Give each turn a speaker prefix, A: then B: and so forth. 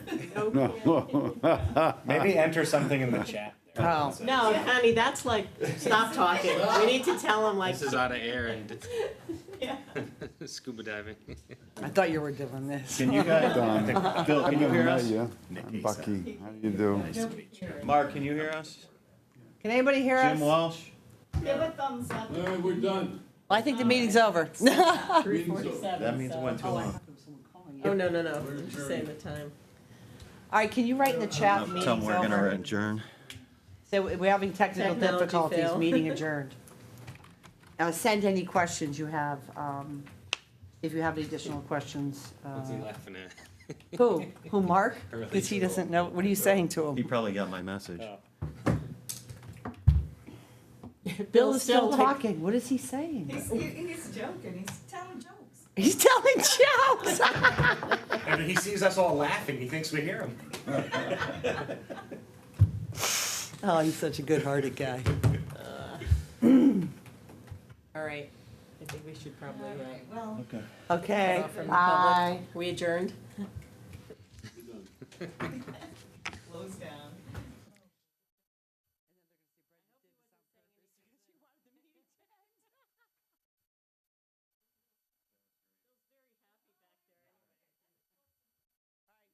A: No.
B: Maybe enter something in the chat. there that
C: Oh.
B: says-
D: No, honey, that's like, stop talking. We need to tell them like,
E: This is out of air and
D: yeah.
E: scuba diving.
C: I thought you were doing this.
B: Can you guys, I
A: Done.
B: think- Bill,
A: I'm
B: can you
A: gonna
B: hear
A: know
B: us?
A: you.
B: Nikki,
A: I'm Bucky. How do you do?
B: Nice to meet you.
F: Mark, can you hear us?
C: Can anybody hear us?
F: Jim
C: Well,
F: Walsh?
D: Give a thumbs up.
G: Larry, we're done.
C: I think the meeting's over.
G: Meeting's over.
F: That means it went too long.
D: Oh, no, no, no, just saying the time.
C: All right, can you write in the chat, meeting's
F: Tell 'em we're gonna
C: over?
F: adjourn.
C: So we- we're having technical
D: Technology
C: difficulties,
D: fail.
C: meeting adjourned. Uh, send any questions you have, um, if you have any additional questions.
E: What's he
C: uh,
E: laughing at?
C: Who? Who, Mark?
E: Early
C: Because he
E: April.
C: doesn't know, what are you saying to
F: He
C: him?
F: probably got my message.
B: Oh.
C: Bill is still
D: like-
C: talking, what is he saying?
H: He's, he- he's joking. He's telling jokes.
C: He's telling jokes!
B: And he sees us all laughing, he thinks we hear him.
C: Oh, he's such a good-hearted guy.
D: All right, I think we should probably, uh,
H: Well.
F: Okay.
C: Okay,
D: From the public.
C: bye.
D: we adjourned?